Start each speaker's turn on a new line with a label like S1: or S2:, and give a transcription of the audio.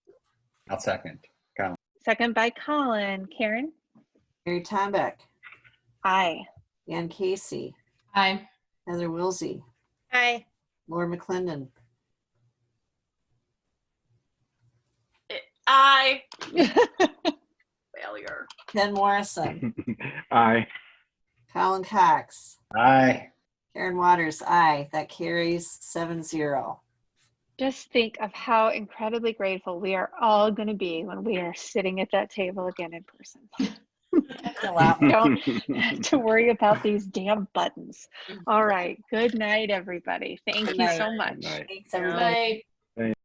S1: I'll second.
S2: Second by Colin. Karen?
S3: Mary Tombeck,
S2: Aye.
S3: Dan Casey,
S4: Aye.
S3: Heather Wilsey,
S5: Aye.
S3: Laura McClendon,
S6: I failure.
S3: Ken Morrison,
S7: Aye.
S3: Colin Cox,
S1: Aye.
S3: Karen Waters, aye. That carries seven zero.
S2: Just think of how incredibly grateful we are all going to be when we are sitting at that table again in person. Don't have to worry about these damn buttons. All right. Good night, everybody. Thank
S3: Good
S2: you
S3: night.
S2: so
S1: Good
S2: much.
S1: night.
S3: Thanks, everybody.
S4: Aye.